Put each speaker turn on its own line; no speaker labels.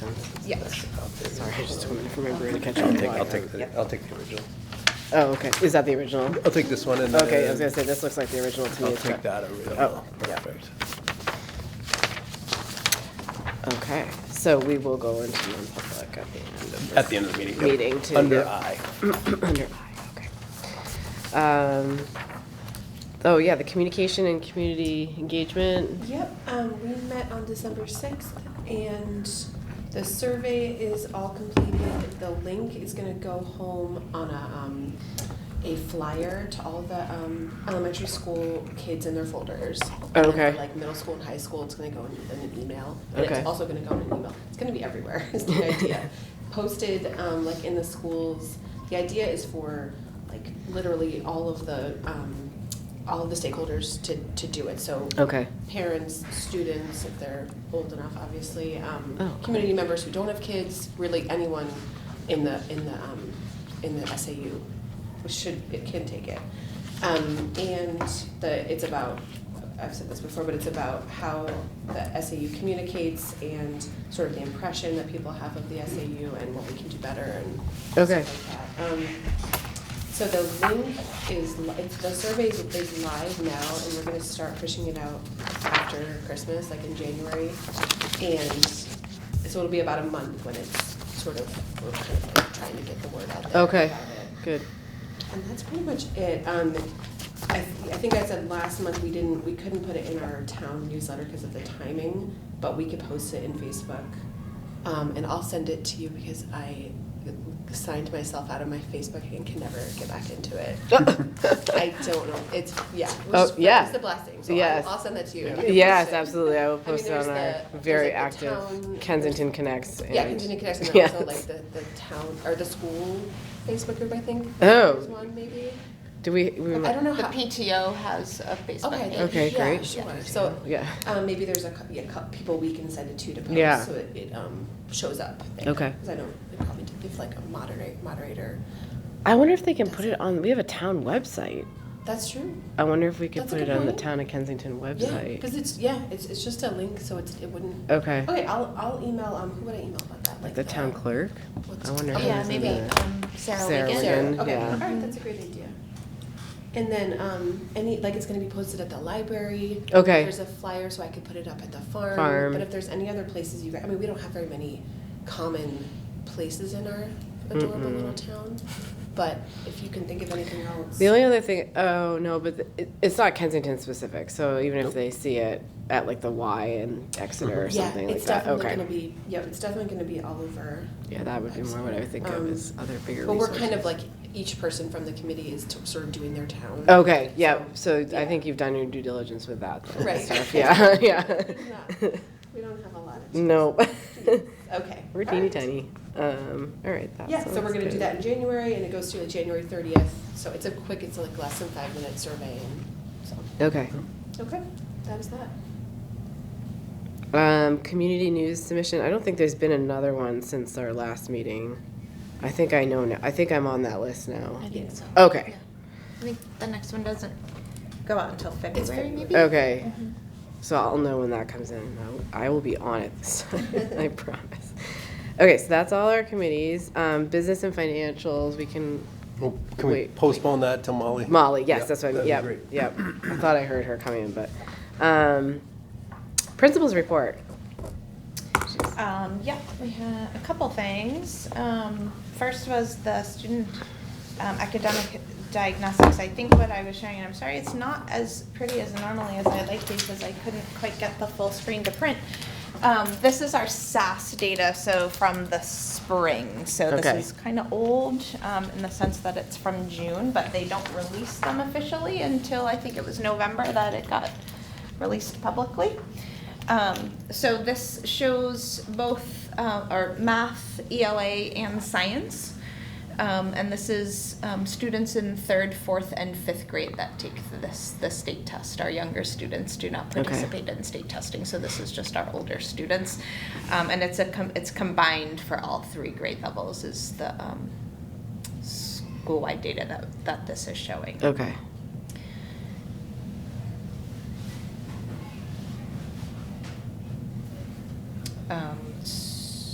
Yes.
Sorry, I just couldn't remember to catch all the
I'll
wire.
take, the I'll take the original.
Oh, okay, is that the original?
I'll take this one and then.
Okay, I was gonna say, this looks like the original to me.
I'll
as well.
take that original.
Oh, yeah.
Perfect.
Okay, so we will go into non-public at the end of
At the end of the meeting. yep.
Meeting to-
Under
yep.
I.
Under I, okay. Um, oh, yeah, the communication and community engagement.
Yep, um, we met on December sixth and the survey is all completed. The link is gonna go home on a, um, a flyer to all the, um, elementary school kids in their folders. And
Okay.
for, Like middle school and high school, it's gonna go in, in an email. And
Okay.
it's also gonna go in an email. It's gonna be everywhere, is the idea. Posted, um, like in the schools. The idea is for, like, literally all of the, um, all of the stakeholders to, to do it. So
Okay,
parents, students, if they're old enough, obviously, um,
Oh, okay.
community members who don't have kids, really anyone in the, in the, um, in the SAU, which should, it can take it. Um, and the, it's about, I've said this before, but it's about how the SAU communicates and sort of the impression that people have of the SAU and what we can do better and
Okay.
stuff like that. Um, so the link is, li- it's, the survey is is live now, and we're gonna start pushing it out after Christmas, like in January. And so it'll be about a month when it's sort of, we're kind of like trying to get the word out there.
Okay.
about it.
good.
And that's pretty much it. Um, I, I think I said last month, we didn't, we couldn't put it in our town newsletter because of the timing, but we could post it in Facebook. Um, and I'll send it to you because I signed myself out of my Facebook and can never get back into it. I don't know, it's, yeah. it was-
Oh, yeah.
It's a blessing, so
Yes.
I'll, I'll send that to you. and you can
Yes,
post it.
absolutely, I will
mean,
post it
there's
on our
the-
very
there's, like, the
active
town-
Kensington Connects.
Yeah,
and-
Continue Connect, and
Yes.
also like the, the town, or the school Facebook group, I think.
Oh.
There's one maybe.
Do we, we,
I don't know
The
how.
PTO has a Facebook
Okay.
page.
Okay,
yeah,
great.
Sure. So
yeah,
um, maybe there's a cou- yeah, cou- people we can send it to to post
Yeah.
so it, it um, shows up.
Okay.
Because I don't it probably did give like a moderate moderator.
I wonder if they can put it on, we have a town website.
That's true.
I wonder if we could
That's a
put it
good
on the
point.
town of Kensington
Yeah.
website.
Because it's yeah, it's, it's just a link, so it's, it wouldn't.
Okay,
Okay, I'll I'll email um who would I email about that like uh,
the town clerk?
what's-
I wonder.
Oh,
how
Yeah,
that's
maybe
gonna-
um, Sarah
Sarah
Wiegand.
Wiegand.
Sarah. Okay.
yeah.
All right, that's a great idea. And then um, any like it's going to be posted at the library.
Okay.
There's a flyer so I could put it up at the farm.
Farm.
But if there's any other places you guys, I mean, we don't have very many common places in our adorable
Mm-mm.
little town. But if you can think of anything else,
The only other thing, oh no, but th- it, it's not Kensington specific. So even if they see it at like the Y in Exeter or
Mm-hmm. yeah,
something
it's
like that,
definitely
okay,
going to be. Yep, it's definitely going to be all over.
yeah, that would be more what I would think
Um,
of as other bigger.
But we're kind of
resources.
like each person from the committee is t- sort of doing their town.
Okay, yeah. So I
yeah.
think you've done your due diligence with that. then, and
Right.
stuff. Yeah, yeah.
Not- We don't have a lot of.
no,
Okay.
we're teeny tiny. Um, all right. That
Yeah, so we're
sounds
gonna do
good.
that in January, and it goes to like January thirtieth, so it's a quick, it's like less than five minute survey, and so,
Okay.
okay, that is that.
Um, community news submission. I don't think there's been another one since our last meeting. I think I know now. I think I'm on that list now.
I think so.
Okay.
Yeah. I think the next one doesn't
go out until
It's
February.
very maybe.
Okay.
Mm-hmm.
So I'll know when that comes in. and I'll- I will be on it this time, I promise. Okay, so that's all our committees. Um, business and financials, we can,
Well, Oh, Can we
Wait.
postpone that till Molly?
Molly, yes,
Yeah,
that's what, I mean.
that'd
yep,
be
yep. I thought I heard her coming in, but, um, principals report.
Um, yeah, we had a couple things. Um, first was the student um, academic diagnostics. I think what I was showing, and I'm sorry, it's not as pretty as normally as I like these, because I couldn't quite get the full screen to print. Um, this is our SAS data, so from the spring. So this
Okay.
is kind of old um, in the sense that it's from June, but they don't release them officially until I think it was November that it got released publicly. Um, so this shows both uh, our math, ELA, and science. Um, and this is um, students in third, fourth, and fifth grade that take this the state test. Our younger students do not
Okay.
participate in state testing, so this is just our older students. Um, and it's a com- it's combined for all three grade levels is the um, school wide data that that this is showing.
Okay,
Um,